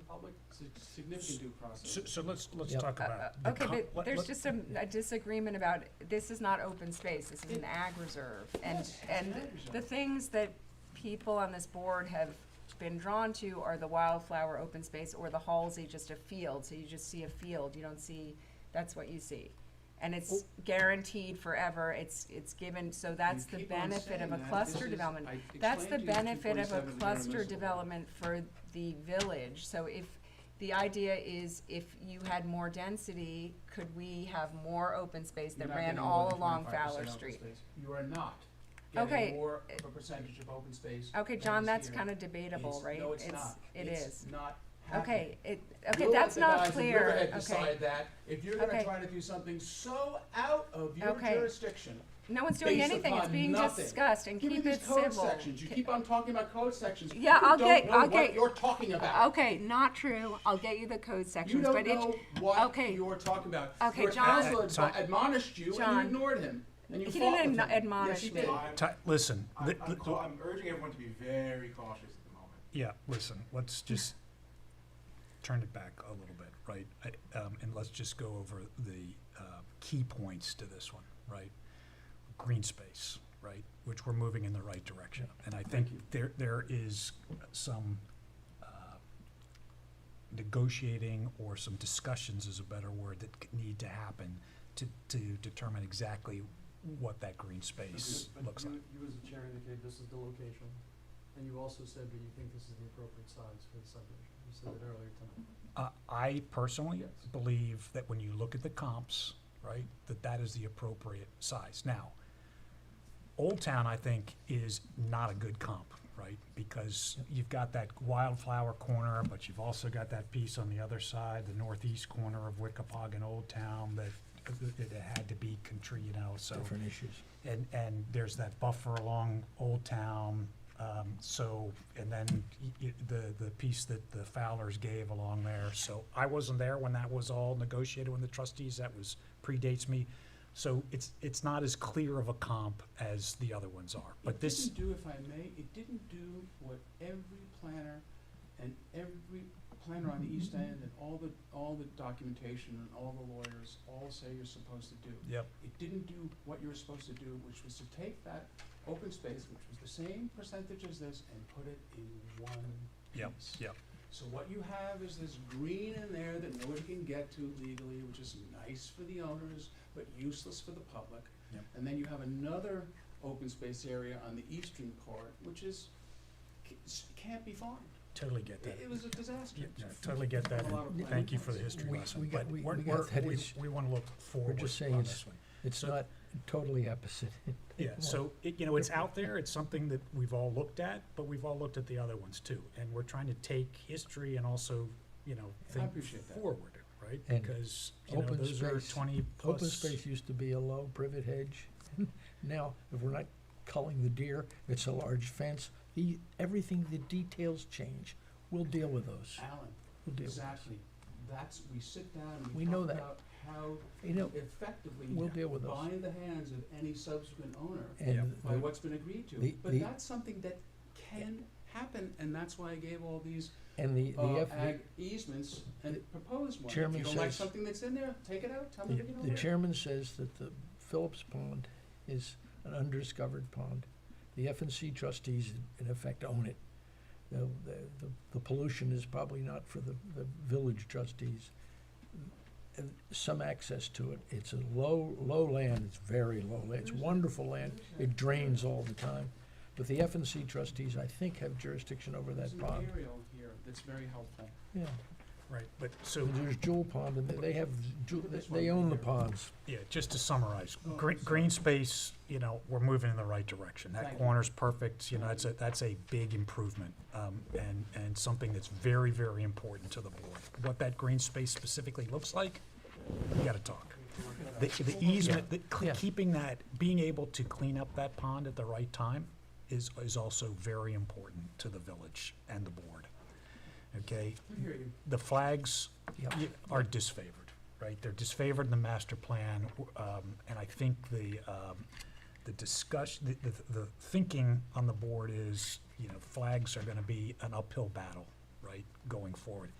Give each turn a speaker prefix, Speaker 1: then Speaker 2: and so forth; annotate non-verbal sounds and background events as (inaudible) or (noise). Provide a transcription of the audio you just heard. Speaker 1: public, si- significant due process.
Speaker 2: So, so let's, let's
Speaker 3: Yep.
Speaker 2: talk
Speaker 4: Uh,
Speaker 2: about.
Speaker 4: uh,
Speaker 2: the
Speaker 4: Okay,
Speaker 2: com-
Speaker 4: but
Speaker 2: let-
Speaker 4: there's
Speaker 2: let-
Speaker 4: just some a disagreement about, this is not open space, this is an ag reserve. And,
Speaker 1: Yes, it's
Speaker 4: and
Speaker 1: an ag reserve.
Speaker 4: the things that people on this board have been drawn to are the wildflower open space or the Halsey, just a field. So you just see a field, you don't see, that's what you see. And
Speaker 1: Oh.
Speaker 4: it's guaranteed forever, it's, it's given, so that's
Speaker 1: You
Speaker 4: the
Speaker 1: keep on
Speaker 4: benefit of
Speaker 1: saying
Speaker 4: a
Speaker 1: that. This
Speaker 4: cluster
Speaker 1: is-
Speaker 4: development.
Speaker 1: I
Speaker 4: That's the
Speaker 1: explained to you
Speaker 4: benefit of a
Speaker 1: 247 is
Speaker 4: cluster
Speaker 1: impermissible.
Speaker 4: development for the village, so if, the idea is if you had more density, could we have more open space
Speaker 1: You're
Speaker 4: that
Speaker 1: not
Speaker 4: ran
Speaker 1: getting more
Speaker 4: all
Speaker 1: than
Speaker 4: along
Speaker 1: 25%
Speaker 4: Fowler
Speaker 1: open
Speaker 4: Street?
Speaker 1: space. You are not
Speaker 4: Okay,
Speaker 1: getting more
Speaker 4: uh,
Speaker 1: of a percentage of open space.
Speaker 4: Okay,
Speaker 1: than
Speaker 4: John,
Speaker 1: is
Speaker 4: that's
Speaker 1: here.
Speaker 4: kinda debatable,
Speaker 1: It's-
Speaker 4: right?
Speaker 1: No, it's not.
Speaker 4: It
Speaker 1: It's
Speaker 4: is.
Speaker 1: not happening.
Speaker 4: Okay, it, okay,
Speaker 1: We'll let
Speaker 4: that's
Speaker 1: the
Speaker 4: not
Speaker 1: guys in
Speaker 4: clear,
Speaker 1: Riverhead
Speaker 4: okay.
Speaker 1: decide that. If you're gonna
Speaker 4: Okay.
Speaker 1: try to do something so out of your
Speaker 4: Okay.
Speaker 1: jurisdiction,
Speaker 4: No one's doing
Speaker 1: based
Speaker 4: anything, it's
Speaker 1: upon
Speaker 4: being
Speaker 1: nothing.
Speaker 4: discussed and
Speaker 1: give me
Speaker 4: keep
Speaker 1: these
Speaker 4: it
Speaker 1: code
Speaker 4: civil.
Speaker 1: sections. You keep on talking about code sections.
Speaker 4: Yeah, I'll get- I'll
Speaker 1: You don't know
Speaker 4: get-
Speaker 1: what you're talking about.
Speaker 4: Okay, not true, I'll get you the code
Speaker 1: You
Speaker 4: sections,
Speaker 1: don't
Speaker 4: but it's,
Speaker 1: know what
Speaker 4: okay.
Speaker 1: you're talking about.
Speaker 4: Okay,
Speaker 1: Your
Speaker 4: John-
Speaker 1: counsel advi-
Speaker 2: Time.
Speaker 1: admonished you and
Speaker 4: John.
Speaker 1: you ignored him. And you
Speaker 4: he
Speaker 1: fought with
Speaker 4: didn't
Speaker 1: him.
Speaker 4: admo-
Speaker 1: Yes,
Speaker 4: admonish
Speaker 1: he
Speaker 4: me.
Speaker 1: did.
Speaker 5: I'm,
Speaker 2: Ti- Listen,
Speaker 5: I'm,
Speaker 2: li-
Speaker 5: I'm
Speaker 2: li-
Speaker 5: cau- I'm urging everyone to be very cautious at the moment.
Speaker 2: yeah, listen, let's just turn it back a little bit, right? I- um, And let's just go over the uh, key points to this one, right? Green space, right, which we're moving in the right direction. And I think there, there is some uh, negotiating or some discussions is a better word that c- need to happen to, to determine exactly what that green space
Speaker 6: But you-
Speaker 2: looks
Speaker 6: but
Speaker 2: like.
Speaker 6: You, you as the chair indicated this is the location, and you also said that you think this is the appropriate size for the subdivision. You said that earlier tonight.
Speaker 2: Uh, I personally
Speaker 6: Yes.
Speaker 2: believe that when you look at the comps, right, that that is the appropriate size. Now, Old Town, I think, is not a good comp, right? Because you've got that wildflower corner, but you've also got that piece on the other side, the northeast corner of Wickapock and Old Town that that it had to be contri, you know, so.
Speaker 3: Different issues.
Speaker 2: And, and there's that buffer along Old Town, um, so, and then y- y- the, the piece that the Fowlers gave along there. So I wasn't there when that was all negotiated, when the trustees, that was, predates me. So it's, it's not as clear of a comp as the other ones are, but this,
Speaker 1: It didn't do, if I may, it didn't do what every planner and every planner on the
Speaker 4: Mm-hmm.
Speaker 1: East End and all the, all the documentation and all the lawyers all say you're supposed to do.
Speaker 2: yep,
Speaker 1: It didn't do what you were supposed to do, which was to take that open space, which was the same percentage as this, and put it in one
Speaker 2: Yep,
Speaker 1: piece.
Speaker 2: yep.
Speaker 1: So what you have is this green in there that nobody can get to legally, which is nice for the owners, but useless for the public.
Speaker 2: Yep.
Speaker 1: And then you have another open space area on the eastern part, which is, ca- s- can't be farmed.
Speaker 2: totally get
Speaker 1: It
Speaker 2: that.
Speaker 1: it was a disaster.
Speaker 2: Yeah, no, Totally get
Speaker 1: A
Speaker 2: that,
Speaker 1: lot
Speaker 2: and
Speaker 1: of
Speaker 2: thank you for the
Speaker 1: planning.
Speaker 2: history
Speaker 3: We-
Speaker 2: lesson,
Speaker 3: we
Speaker 2: but
Speaker 3: got-
Speaker 2: we're,
Speaker 3: we-
Speaker 2: we're,
Speaker 3: we got that.
Speaker 2: we,
Speaker 3: It's-
Speaker 2: we wanna look forward on this
Speaker 3: just
Speaker 2: one.
Speaker 3: saying it's- It's
Speaker 2: So-
Speaker 3: not totally opposite. (laughs)
Speaker 2: Yeah, so, it, you know, it's out there, it's something that we've all looked at, but we've all looked at the other ones too. And we're trying to take history and also, you know,
Speaker 1: I
Speaker 2: think
Speaker 1: appreciate that.
Speaker 2: forward, right?
Speaker 3: And
Speaker 2: Because, you know,
Speaker 3: open
Speaker 2: those are
Speaker 3: space-
Speaker 2: twenty plus.
Speaker 3: Open space used to be a low privet hedge. (laughs) Now, if we're not culling the deer, it's a large fence. The, everything, the details change. We'll deal with those.
Speaker 1: Alan,
Speaker 3: We'll deal with those.
Speaker 1: exactly. That's, we sit down and we
Speaker 3: We know
Speaker 1: talk
Speaker 3: that.
Speaker 1: about how
Speaker 3: You know,
Speaker 1: effectively
Speaker 3: we'll deal with those.
Speaker 1: bind the hands of any subsequent owner
Speaker 3: And
Speaker 1: by
Speaker 3: the-
Speaker 1: what's been agreed to.
Speaker 3: The-
Speaker 1: But
Speaker 3: the-
Speaker 1: that's something that can happen, and that's why I gave all these
Speaker 3: And the, the
Speaker 1: uh,
Speaker 3: F,
Speaker 1: ag easements and proposed one. If you
Speaker 3: Chairman
Speaker 1: don't like
Speaker 3: says-
Speaker 1: something that's in there, take it out, tell me
Speaker 2: The-
Speaker 1: to get
Speaker 3: the
Speaker 1: it out.
Speaker 3: chairman says that the Phillips Pond is an undiscovered pond. The F and C trustees in effect own it. The, the- the, the pollution is probably not for the, the village trustees. And Some access to it. It's a low, low land, it's very low land, it's wonderful land, it drains all the time. But the F and C trustees, I think, have jurisdiction over
Speaker 1: There's
Speaker 3: that pond.
Speaker 1: material here that's very helpful.
Speaker 3: Yeah,
Speaker 2: Right, but so,
Speaker 3: there's Jewel Pond and they have, Jewel-
Speaker 1: Look at this
Speaker 3: they
Speaker 1: one
Speaker 3: own the
Speaker 1: here.
Speaker 3: ponds.
Speaker 2: yeah, just to summarize,
Speaker 1: Oh,
Speaker 2: green,
Speaker 1: sorry.
Speaker 2: green space, you know, we're moving in the right direction.
Speaker 1: Thank
Speaker 2: That
Speaker 1: you.
Speaker 2: corner's perfect, you know, that's a, that's a big improvement. Um, and, and something that's very, very important to the board. What that green space specifically looks like, we gotta talk. The, the easement, the, cle-
Speaker 3: Yeah.
Speaker 2: keeping that, being able to clean up that pond at the right time is, is also very important to the village and the board. Okay,
Speaker 1: I hear you.
Speaker 2: the flags
Speaker 3: Yep.
Speaker 2: y- are disfavored, right? They're disfavored in the master plan, w- um, and I think the, um, the discussion, the, the, the thinking on the board is, you know, flags are gonna be an uphill battle, right, going forward.